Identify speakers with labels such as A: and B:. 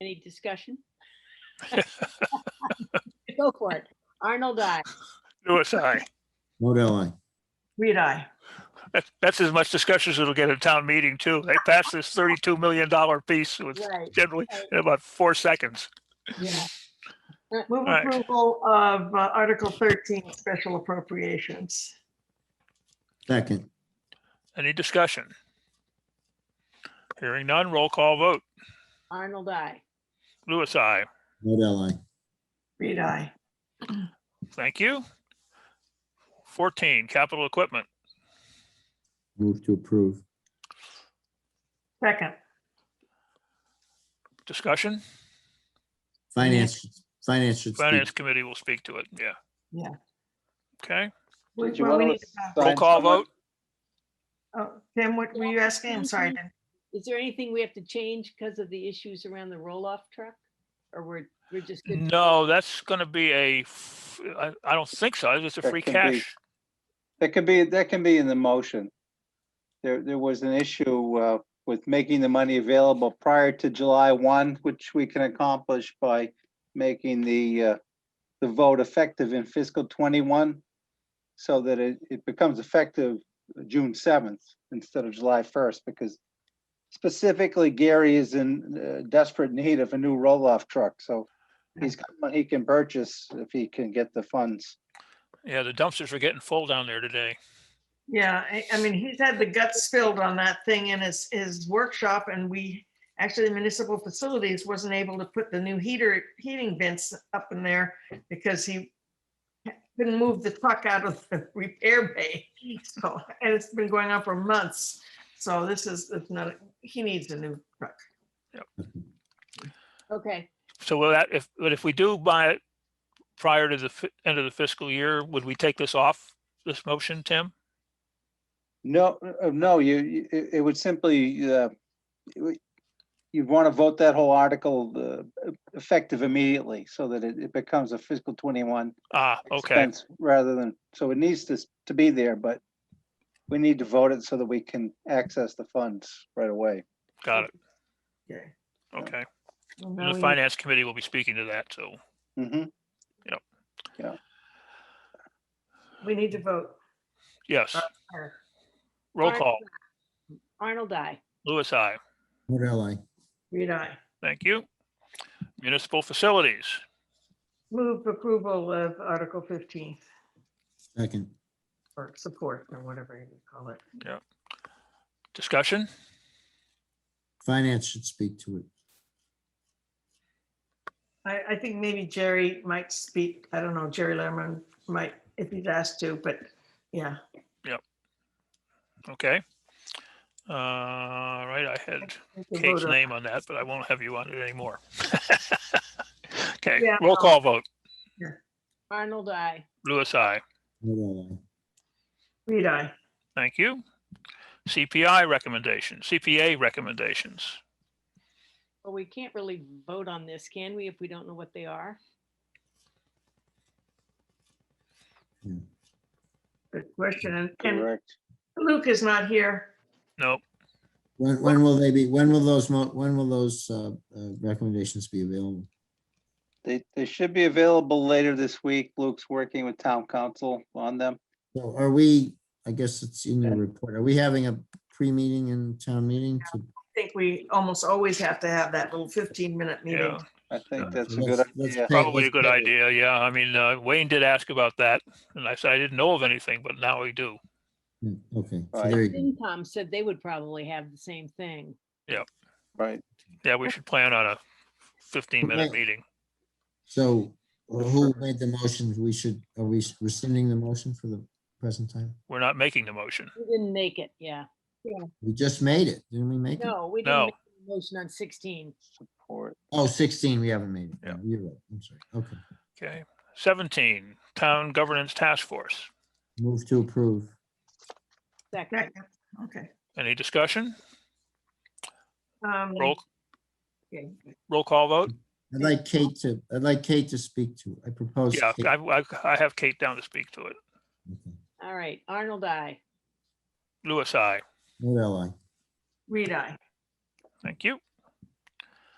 A: Any discussion? Go for it. Arnold, I.
B: Louis, aye.
C: Modell, aye.
D: Reed, I.
B: That's, that's as much discussion as it'll get at town meeting too. They passed this thirty-two million dollar piece with
A: Right.
B: generally in about four seconds.
D: Move
B: Aye.
D: approval of uh, Article 13, special appropriations.
C: Second,
B: Any discussion? Hearing none, roll call vote.
A: Arnold, I.
B: Louis, aye.
C: Modell, aye.
D: Reed, I.
B: Thank you. Fourteen, capital equipment.
C: Move to approve.
D: Second,
B: Discussion?
C: Finance, finance should speak.
B: Finance committee will speak to it, yeah.
D: Yeah.
B: Okay,
D: We-
E: Did you
D: well, we
E: wanna
D: need to pass-
E: assign
B: roll call
E: someone?
B: vote.
D: oh, Tim, what were you asking? I'm sorry. I didn't-
A: Is there anything we have to change because of the issues around the roll-off truck? Or we're, we're just, good?
B: No, that's gonna be a, f- I, I don't think so. It's a
E: That
B: free
E: can be-
B: cash.
E: That could be, that can be in the motion. There, there was an issue uh, with making the money available prior to July 1, which we can accomplish by making the, uh, the vote effective in fiscal 21, so that it, it becomes effective June 7th instead of July 1st, because specifically Gary is in uh, desperate need of a new roll-off truck, so he's got money he can purchase if he can get the funds.
B: Yeah, the dumpsters are getting full down there today.
D: Yeah, I, I mean, he's had the guts spilled on that thing in his, his workshop and we, actually the municipal facilities wasn't able to put the new heater, heating vents up in there because he couldn't move the truck out of the repair bay. So, and it's been going on for months. So this is, it's not, he needs a new truck.
A: okay,
B: So will that, if, but if we do buy it prior to the fi- end of the fiscal year, would we take this off this motion, Tim?
E: No, uh, no, you, you- it it would simply, uh, it would- you'd want to vote that whole article uh, effective immediately so that it it becomes a fiscal 21
B: Ah, okay,
E: expense rather than, so it needs to, s- to be there, but we need to vote it so that we can access the funds right away.
B: got it,
D: Okay.
B: okay.
D: Well, now
B: The
D: we-
B: finance committee will be speaking to that, so.
E: Mhm.
D: We need to vote.
B: Yes,
D: Or-
B: roll
A: Aye.
B: call.
A: Arnold, I.
B: Louis, I.
C: Modell, aye.
D: Reed, I.
B: Thank you. Municipal facilities.
D: Move approval of Article 15
C: Second,
D: or support or whatever you call it.
B: Discussion?
C: finance should speak to it.
D: I, I think maybe Jerry might speak. I don't know, Jerry Lerman might, if he's asked to, but yeah.
B: Okay. Uh, right, I had
D: we can
B: Kate's
D: vote on-
B: name on that, but I won't have you on it anymore. Okay,
D: Yeah.
B: roll call vote.
A: Arnold, I.
B: Louis, I.
C: Modell, aye.
D: Reed, aye.
B: Thank you. CPI recommendations, CPA recommendations.
A: Well, we can't really vote on this, can we, if we don't know what they are?
D: Good question. And- And
E: Correct.
D: Luke is not here.
B: No,
C: When, when will they be, when will those, mo- when will those uh, uh, recommendations be available?
E: They, they should be available later this week. Luke's working with town council on them.
C: So are we, I guess it's in your report, are we having a pre-meeting and town meeting? to-
D: I think we almost always have to have that little 15-minute
B: yeah,
D: meeting.
E: I think Uh, that's a
C: Let's-
E: good
C: let's
E: idea.
C: pick-
B: probably a
C: let's
B: good
C: pick it.
B: idea. Yeah, I mean, uh, Wayne did ask about that and I said, I didn't know of anything, but now we do.
C: Hmm, Okay, so
E: Right.
C: there you go.
A: FinCom said they would probably have the same thing.
E: Right.
B: Yeah, we should plan on a fifteen minute
C: Okay.
B: meeting.
C: So uh, who made the motion? We should, are we rescinding the motion for the present time?
B: We're not making the motion.
A: We didn't make it, yeah.
C: We just made it, didn't we make it?
A: No, we
B: No.
A: didn't make the motion on 16.
E: Or
C: Oh, 16, we haven't made it. Oh,
B: Yeah.
C: You're right, I'm sorry. Okay,
B: Okay. Seventeen, Town Governance Task Force.
C: move to approve.
A: Second,
D: Right, Okay.
B: Any discussion?
D: Um,
B: Roll,
D: okay.
B: roll call vote?
C: I'd like Kate to, I'd like Kate to speak to. I propose.
B: Yeah,
C: Kate.
B: I, I- I have Kate down to speak to it.
C: Okay.
A: all right, Arnold, I.
B: Louis, I.
C: What ally?
D: Reed, aye.
B: Thank you.